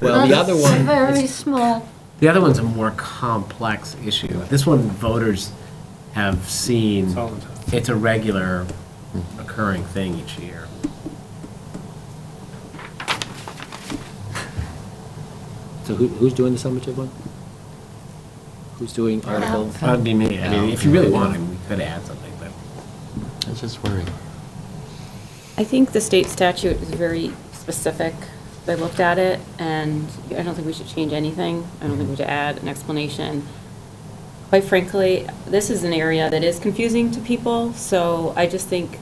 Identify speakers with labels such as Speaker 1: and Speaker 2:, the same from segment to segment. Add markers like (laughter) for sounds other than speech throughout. Speaker 1: Well, the
Speaker 2: That's
Speaker 1: other
Speaker 2: a
Speaker 1: one,
Speaker 2: Very small.
Speaker 3: The other one's a more complex issue. This one, voters have seen,
Speaker 4: all the time.
Speaker 3: it's a regular occurring thing each year.
Speaker 1: so who, who's doing the summative one? Who's doing article?
Speaker 3: That'd be me. I mean, if you really wanted, we could add something, but.
Speaker 5: It's just worrying.
Speaker 6: I think the state statute is very specific. I looked at it, and I don't think we should change anything. I don't think we should add an explanation. Quite frankly, this is an area that is confusing to people, so I just think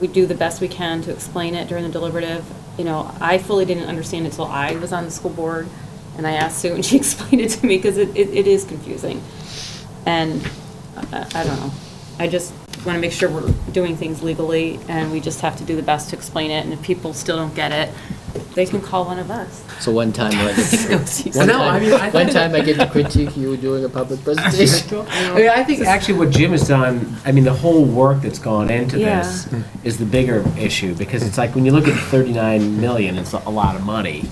Speaker 6: we do the best we can to explain it during the deliberative. You know, I fully didn't understand it till I was on the school board, and I asked Sue, and she (laughs) explained it to me, because it, it it is confusing. And I I don't know. I just want to make sure we're doing things legally, and we just have to do the best to explain it, and if people still don't get it, they can call one of us.
Speaker 1: So one time,
Speaker 3: (laughs)
Speaker 1: I get-
Speaker 6: Go see
Speaker 1: one
Speaker 3: No, I mean, I
Speaker 1: time, one
Speaker 3: think-
Speaker 1: time I get to critique you doing a
Speaker 3: (laughs)
Speaker 1: public presentation.
Speaker 3: I mean, I think actually what Jim has done, I mean, the whole work that's gone into
Speaker 6: Yeah.
Speaker 3: this is the bigger issue, because it's like, when you look at 39 million, it's a lot of money.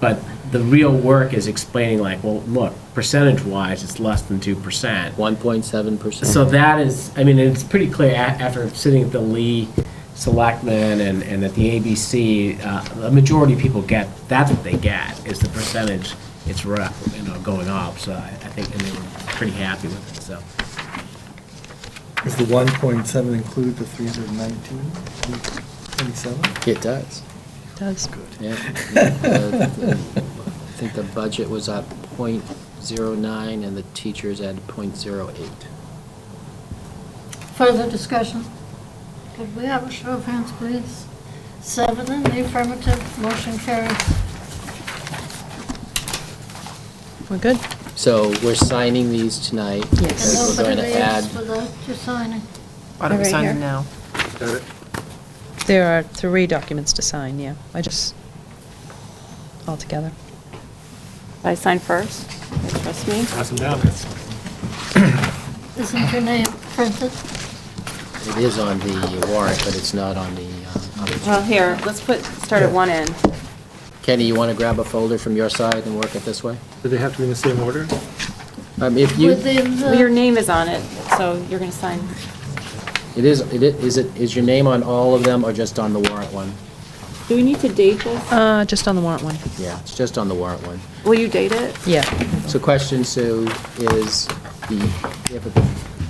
Speaker 3: But the real work is explaining like, well, look, percentage-wise, it's less than 2%.
Speaker 1: One point seven percent.
Speaker 3: So that is, I mean, it's pretty clear a- after sitting at the Lee Selectmen and, and at the ABC, uh, the majority of people get, that's what they get, is the percentage it's rough, you know, going up, so I, I think, and they were pretty happy with it, so.
Speaker 7: Does the one point seven include the three hundred and nineteen, twenty-seven?
Speaker 1: It does.
Speaker 2: Does.
Speaker 1: Yeah. Uh, I think the budget was at .09 and the teachers at .08.
Speaker 2: Further discussion? Could we have a show of hands, please? Seven in the affirmative, motion carries.
Speaker 8: We're good.
Speaker 1: So we're signing these tonight.
Speaker 2: And
Speaker 8: Yes.
Speaker 1: We're
Speaker 2: nobody
Speaker 1: going to
Speaker 2: leaves
Speaker 1: add,
Speaker 2: without your signing.
Speaker 8: Why don't we sign them now?
Speaker 4: Got it?
Speaker 8: There are three documents to sign, yeah. I just, all together.
Speaker 6: I sign first, You trust me.
Speaker 4: Pass them down.
Speaker 2: Isn't your name printed?
Speaker 1: it is on the warrant, but it's not on the, uh, on the-
Speaker 6: Well, here, let's put, start at one end.
Speaker 1: Kenny, you want to grab a folder from your side and work it this way?
Speaker 4: Do they have to be in the same order?
Speaker 1: Um, If you, it
Speaker 2: Within
Speaker 6: Well, Your
Speaker 2: the,
Speaker 6: name is on it, so you're going to sign.
Speaker 1: is, it i- is it, is your name on all of them or just on the warrant one?
Speaker 6: Do we need to date this?
Speaker 8: Uh, just on the warrant one.
Speaker 1: Yeah, it's just on the warrant one.
Speaker 6: Will you date it?
Speaker 8: Yeah.
Speaker 1: So question, Sue, is the, if it-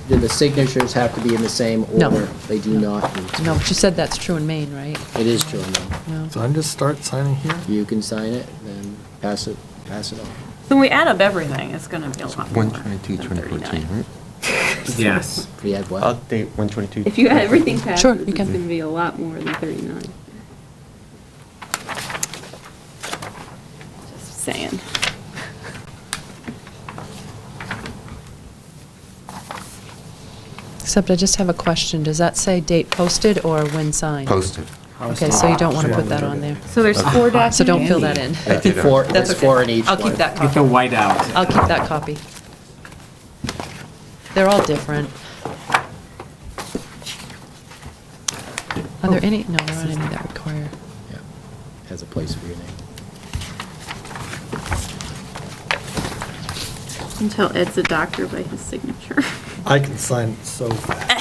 Speaker 1: do the signatures have to be in the same order?
Speaker 8: No.
Speaker 1: They do not need to.
Speaker 8: No, but you said that's true in Maine, right?
Speaker 1: It is true, no.
Speaker 8: No.
Speaker 7: So I'm just start signing here?
Speaker 1: You can sign it, then pass it, pass it on.
Speaker 6: When we add up everything, it's going to be a lot more
Speaker 5: 122,
Speaker 6: than
Speaker 5: 2014,
Speaker 6: 39.
Speaker 5: right?
Speaker 3: Yes.
Speaker 1: We had what?
Speaker 5: Update 122.
Speaker 6: If you add everything past,
Speaker 8: Sure,
Speaker 6: it's
Speaker 8: you
Speaker 6: going
Speaker 8: can.
Speaker 6: to be a lot more than 39. Just saying.
Speaker 8: Except I just have a question. Does that say date posted or when signed?
Speaker 5: Posted.
Speaker 8: Okay, so you don't want to put that on there.
Speaker 6: So there's four documents.
Speaker 8: So don't fill that in.
Speaker 5: I did
Speaker 1: Four,
Speaker 5: it.
Speaker 1: it's four in each
Speaker 8: I'll
Speaker 1: one.
Speaker 8: keep that
Speaker 3: Get the
Speaker 8: copy.
Speaker 3: white out.
Speaker 8: I'll keep that copy. They're all different. Are there any, no, there aren't any that require.
Speaker 1: Yeah, Has a place for your name.
Speaker 6: Until Ed's a doctor by his signature.
Speaker 7: I can sign it so fast.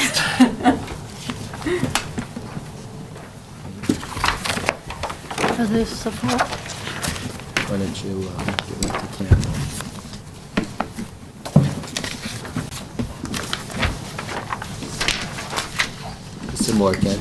Speaker 2: for this support?
Speaker 1: Why don't you uh, give it to Campbell? Some more, Ken.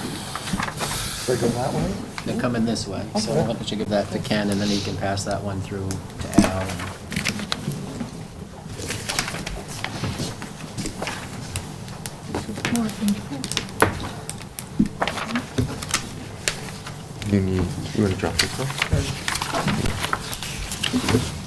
Speaker 7: Should I go that way?
Speaker 1: They're coming this way, so why don't you give that to Ken, and then he can pass that one through to Al. and-
Speaker 2: More than four.
Speaker 5: You need, you want to drop this off?